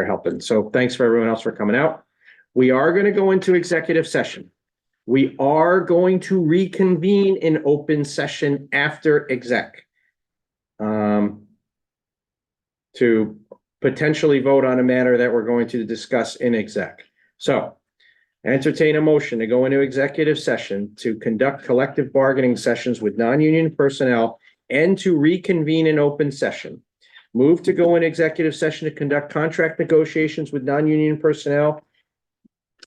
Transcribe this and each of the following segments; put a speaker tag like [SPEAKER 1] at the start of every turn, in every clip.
[SPEAKER 1] for helping. So thanks for everyone else for coming out. We are going to go into executive session. We are going to reconvene in open session after exec. Um, to potentially vote on a matter that we're going to discuss in exec. So entertain a motion to go into executive session to conduct collective bargaining sessions with non-union personnel and to reconvene in open session. Move to go in executive session to conduct contract negotiations with non-union personnel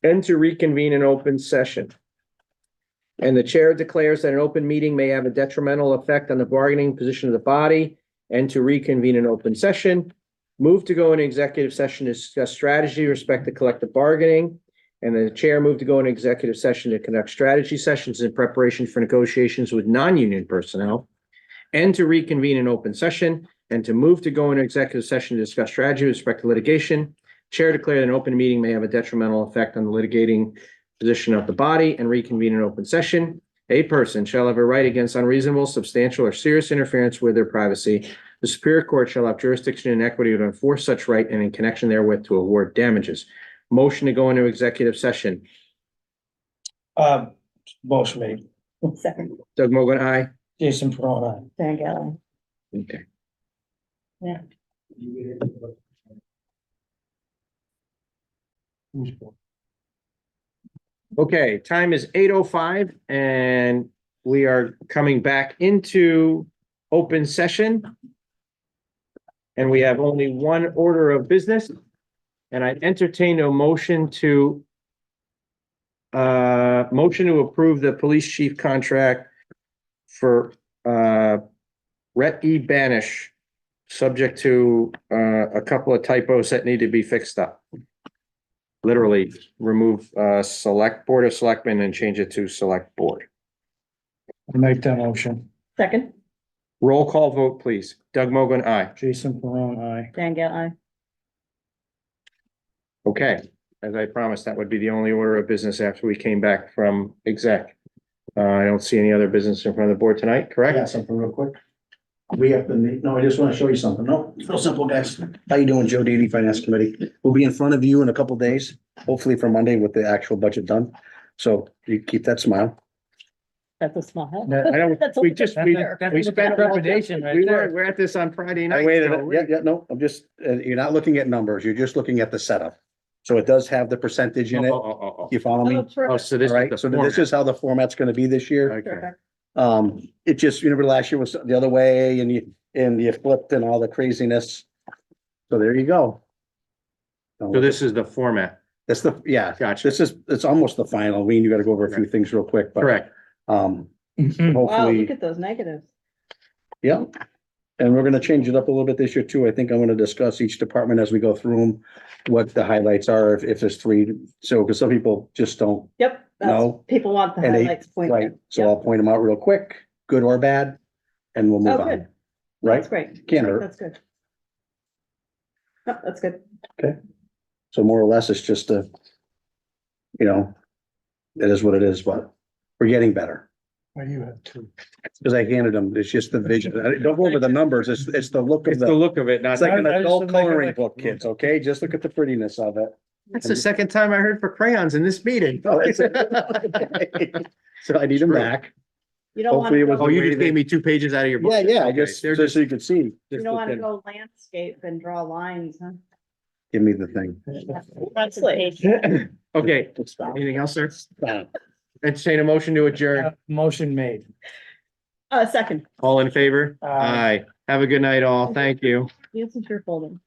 [SPEAKER 1] and to reconvene in open session. And the chair declares that an open meeting may have a detrimental effect on the bargaining position of the body and to reconvene in open session. Move to go in executive session to discuss strategy, respect the collective bargaining. And the chair moved to go in executive session to conduct strategy sessions in preparation for negotiations with non-union personnel and to reconvene in open session and to move to go into executive session to discuss strategy with respect to litigation. Chair declared an open meeting may have a detrimental effect on the litigating position of the body and reconvene in open session. A person shall have a right against unreasonable, substantial, or serious interference with their privacy. The Superior Court shall have jurisdiction and equity to enforce such right and in connection therewith to award damages. Motion to go into executive session.
[SPEAKER 2] Uh, motion made.
[SPEAKER 3] Second,
[SPEAKER 1] Doug Mogul, aye.
[SPEAKER 2] Jason Perron,
[SPEAKER 3] Diane Gale.
[SPEAKER 1] Okay.
[SPEAKER 2] aye.
[SPEAKER 1] Okay, time is eight oh five and we are coming back into open session. And we have only one order of business. And I entertain a motion to uh, motion to approve the police chief contract for uh, Rhett E. Banish, subject to uh, a couple of typos that need to be fixed up literally remove uh select board of selectmen and change it to select board.
[SPEAKER 2] Make that motion.
[SPEAKER 3] Second,
[SPEAKER 1] Roll call vote, please. Doug Mogul, aye.
[SPEAKER 2] Jason Perron, aye.
[SPEAKER 3] Diane Gale, aye.
[SPEAKER 1] Okay, as I promised, that would be the only order of business after we came back from exec. Uh, I don't see any other business in front of the board tonight,
[SPEAKER 4] I got
[SPEAKER 1] correct?
[SPEAKER 4] something real quick. We have to meet, no, I just want to show you something. No, it's real simple, guys. How you doing, Joe Didi, Finance Committee? We'll be in front of you in a couple days, hopefully for Monday with the actual budget done. So you keep that smile.
[SPEAKER 3] That's a small help.
[SPEAKER 1] I don't,
[SPEAKER 3] That's a-
[SPEAKER 1] we just, we, we spent,
[SPEAKER 2] Trepidation
[SPEAKER 1] we were, we're at this on Friday night.
[SPEAKER 4] I waited,
[SPEAKER 1] so we-
[SPEAKER 4] yeah, yeah, no, I'm just, uh, you're not looking at numbers, you're just looking at the setup. So it does have the percentage in
[SPEAKER 1] Oh,
[SPEAKER 4] it.
[SPEAKER 1] oh, oh, oh.
[SPEAKER 4] You follow me?
[SPEAKER 3] Oh,
[SPEAKER 4] All
[SPEAKER 1] Oh,
[SPEAKER 3] terrific.
[SPEAKER 1] so this
[SPEAKER 4] right,
[SPEAKER 1] is
[SPEAKER 4] so
[SPEAKER 1] the
[SPEAKER 4] this
[SPEAKER 1] format.
[SPEAKER 4] is how the format's going to be this year.
[SPEAKER 1] Okay.
[SPEAKER 3] Terrific.
[SPEAKER 4] Um, it just, you remember last year was the other way and you, and you flipped and all the craziness. So there you go.
[SPEAKER 1] So this is the format.
[SPEAKER 4] That's the, yeah,
[SPEAKER 1] Gotcha.
[SPEAKER 4] this is, it's almost the final. I mean, you gotta go over a few things real quick, but,
[SPEAKER 1] Correct.
[SPEAKER 4] um,
[SPEAKER 3] Wow, look
[SPEAKER 4] hopefully,
[SPEAKER 3] at those negatives.
[SPEAKER 4] yeah. And we're gonna change it up a little bit this year too. I think I'm gonna discuss each department as we go through them, what the highlights are, if, if there's three. So, cause some people just don't,
[SPEAKER 3] Yep. that's-
[SPEAKER 4] No.
[SPEAKER 3] People want the
[SPEAKER 4] And they-
[SPEAKER 3] highlights
[SPEAKER 4] right?
[SPEAKER 3] pointed.
[SPEAKER 4] So I'll point them out real quick, good or bad, and we'll move
[SPEAKER 3] Oh,
[SPEAKER 4] on,
[SPEAKER 3] good.
[SPEAKER 4] right?
[SPEAKER 3] That's great.
[SPEAKER 4] Can't hurt.
[SPEAKER 3] That's good. Yep, that's good.
[SPEAKER 4] So more or less, it's just a, you know, it is what it is, but we're getting better.
[SPEAKER 2] Why do you have two?
[SPEAKER 4] Because I handed them, it's just the vision. I- Don't go over the numbers, it's, it's the look of
[SPEAKER 1] It's the
[SPEAKER 4] the,
[SPEAKER 1] look of it, not.
[SPEAKER 4] it's like an
[SPEAKER 2] I- I just
[SPEAKER 4] adult
[SPEAKER 2] didn't like it,
[SPEAKER 4] coloring
[SPEAKER 2] like-
[SPEAKER 4] book, kids, okay? Just look at the prettiness of it.
[SPEAKER 1] That's the second time I heard for crayons in this meeting.
[SPEAKER 4] No, it's- So I need them
[SPEAKER 1] True.
[SPEAKER 4] back.
[SPEAKER 3] You don't want
[SPEAKER 4] Hopefully it
[SPEAKER 3] to
[SPEAKER 4] was
[SPEAKER 1] Oh,
[SPEAKER 3] go,
[SPEAKER 1] you just gave me two pages out of your book.
[SPEAKER 4] Yeah, yeah, I
[SPEAKER 1] Okay,
[SPEAKER 4] just,
[SPEAKER 1] they're
[SPEAKER 4] just so you can see,
[SPEAKER 3] you don't want to go landscape and draw lines, huh?
[SPEAKER 4] give me the thing.
[SPEAKER 3] Honestly.
[SPEAKER 1] Okay,
[SPEAKER 4] Stop.
[SPEAKER 1] anything else, sir?
[SPEAKER 4] Stop.
[SPEAKER 1] Entertain a motion to adjourn.
[SPEAKER 2] Motion made.
[SPEAKER 3] Uh, second,
[SPEAKER 1] All in favor?
[SPEAKER 2] Aye.
[SPEAKER 1] Aye. Have a good night, all. Thank you.
[SPEAKER 3] this is your folder.